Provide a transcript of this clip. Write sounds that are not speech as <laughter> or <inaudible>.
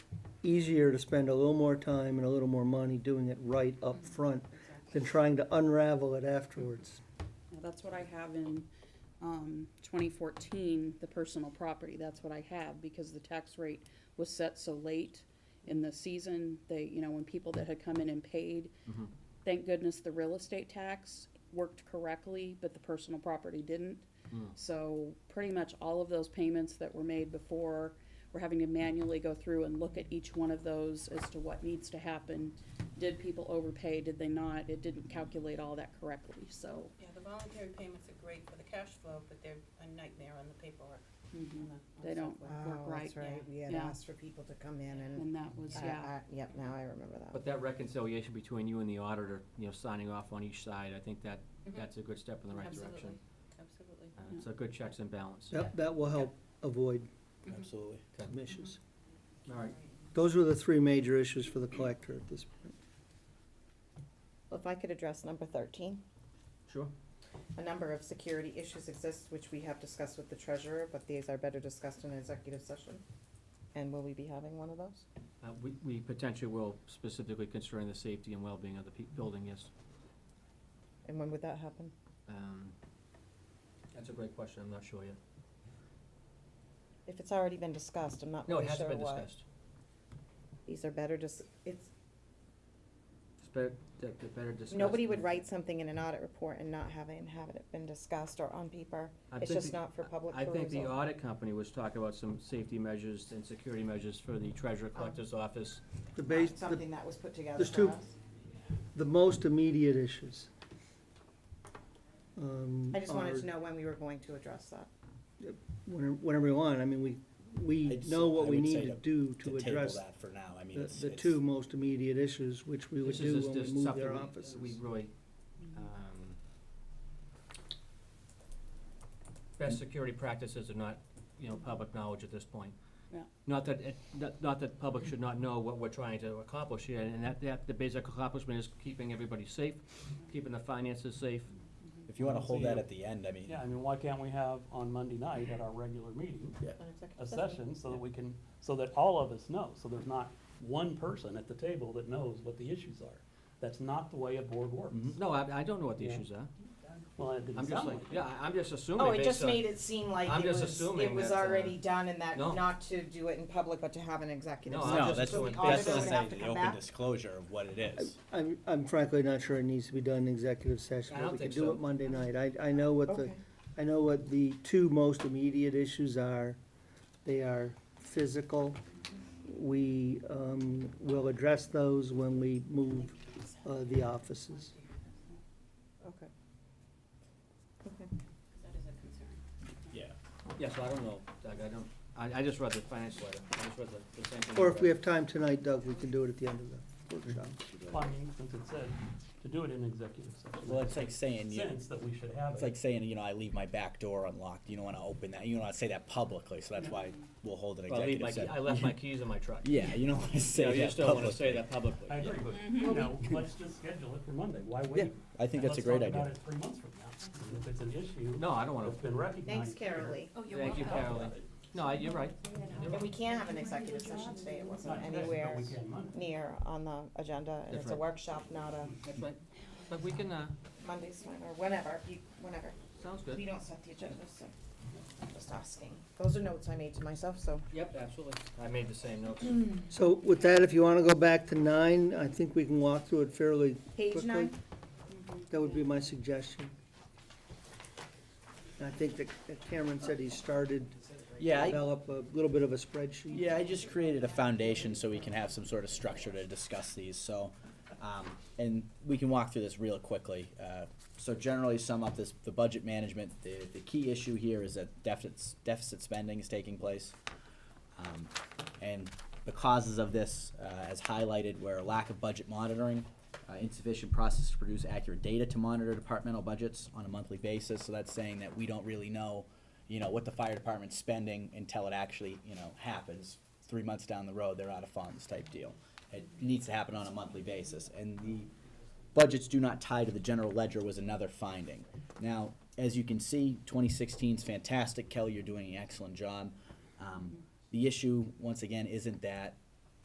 easier to spend a little more time and a little more money doing it right up front than trying to unravel it afterwards. Now, That's what I have in, um, twenty fourteen, the personal property, that's what I have, because the tax rate was set so late in the season, they, you know, when people that had come in and paid, thank goodness the real estate tax worked correctly, but the personal property didn't. So pretty much all of those payments that were made before, we're having to manually go through and look at each one of those as to what needs to happen. Did people overpay, did they not? It didn't calculate all that correctly, so. Yeah, the voluntary payments are great for the cash flow, but they're a nightmare on the paperwork. on the- on the They don't software. work Oh, right, that's right, yeah. we had Yeah. asked for people to come in and, And that was, I- yeah, I- yep, now I remember that. But that reconciliation between you and the auditor, you know, signing off on each side, I think that, Mhm. that's a good step in the right Absolutely, direction. Absolutely. Uh, It's a good checks and balance. That, that will help avoid Absolutely. misses. All right. Those were the three major issues for the collector at this point. Well, if I could address number thirteen. Sure. A number of security issues exist which we have discussed with the treasurer, but these are better discussed in executive session. And will we be having one of those? Uh, We, we potentially will specifically concerning the safety and well-being of the pe- building, yes. And when would that happen? Um, That's a great question, I'm not sure yet. If it's already been discussed, I'm not No, really it hasn't sure been why. discussed. These are better dis, it's, It's better, that- that better discussed. nobody would than- write something in an audit report and not having, have it been discussed or on paper. I It's think just the- not for public I think the perusal. audit company was talking about some safety measures and security measures for the treasurer Oh. collector's office. The base, the Something that was put together there's for two- us. the most immediate issues. um, I just wanted are- to know when we were going to address that. Whenever whenever we want, I mean, we, we I'd know say- what I we would need say to to- do To to table address that for now, I mean, the, it's. the it's- two most immediate issues, which we would This do is just- when we just move something their we- offices. We really, um, best security practices are not, you know, public knowledge at this point. Yeah. Not that, it- not, not that public should not know what we're trying to accomplish here, and that, that, the basic accomplishment is keeping everybody safe, keeping the finances safe. If you wanna So hold you- that at the end, I mean, Yeah, I mean, why can't we have on Monday night at our regular meeting, a session, so that we can, so that all of us know, so there's not one person at the table that knows what the issues are. That's not the way a board works. Mm-hmm. No, I, I don't know what the Yeah. issues are. Well, it didn't I'm just sound like, like. yeah, I- I'm just assuming Oh, it based just on- made it seem like I'm it just was, it assuming was that, uh, already done and that no. not to do it in public, but to have an executive No, session. I'm no, just that's, So the doing- that's what- what I'm auditor would saying, have to the come open back. disclosure of what it is. I'm, I'm frankly not sure it needs to be done in executive session, I but don't we could think do so. it Monday night. I, I know what the, Okay. I know what the two most immediate issues are. They are physical. We, um, will address those when we move, uh, the offices. Uh-huh. Okay. Okay. That is a concern. Yeah. Yeah, so I don't know, Doug, I don't, I, I just read the finance letter, I just read the, the same thing. you Or if we read. have time tonight, Doug, we can do it at the end of the workshop. Well, I mean, since it said to do it in executive session. Well, that it's like makes saying, you- Sense that we should have It's it. like saying, you know, I leave my back door unlocked, you don't wanna open that, you don't wanna say that publicly, so that's why we'll hold an Well, I leave my executive key- session. I left my keys in my <laughs> truck. Yeah, you don't wanna Oh, Yeah, say you that just don't wanna say publicly. that publicly. I agree, but, Mm-hmm. <laughs> you know, let's just schedule it for Monday, why Yeah, wait? I think And that's a great let's talk about idea. it three months from now, And if it's an issue. No, I don't wanna, It's been recognized. Thanks, here, Carolee. Oh, you're thank you, talk Carolyn. about it. No, I- you're right. And we can have an executive session today, it Not wasn't today, but we anywhere can Monday. near on the agenda, and That's it's a right. workshop, not a That's right. But we can, uh, Monday's one, or whenever, you, whenever. sounds We good. don't set the agenda, so I'm just asking. Those are notes I made to myself, so. Yep, absolutely. I made the same notes. So with that, if you wanna go back to nine, I think we can walk through it fairly Page quickly. Mm-hmm. nine? That would be my suggestion. And I think that that Cameron said he started Yeah, to I, develop a little bit of a spreadsheet. yeah, I just created a foundation so we can have some sort of structure to discuss these, so, um, and we can walk through this real quickly. Uh, So generally sum up this, the budget management, the, the key issue here is that deficits, deficit spending is taking place. Um, And the causes of this, uh, as highlighted, were a lack of budget monitoring, uh, insufficient process to produce accurate data to monitor departmental budgets on a monthly basis. So that's saying that we don't really know, you know, what the fire department's spending until it actually, you know, happens. Three months down the road, they're out of funds type deal. It needs to happen on a monthly basis. And the budgets do not tie to the general ledger was another finding. Now, as you can see, 2016 is fantastic. Kelly, you're doing an excellent job. Um, the issue, once again, isn't that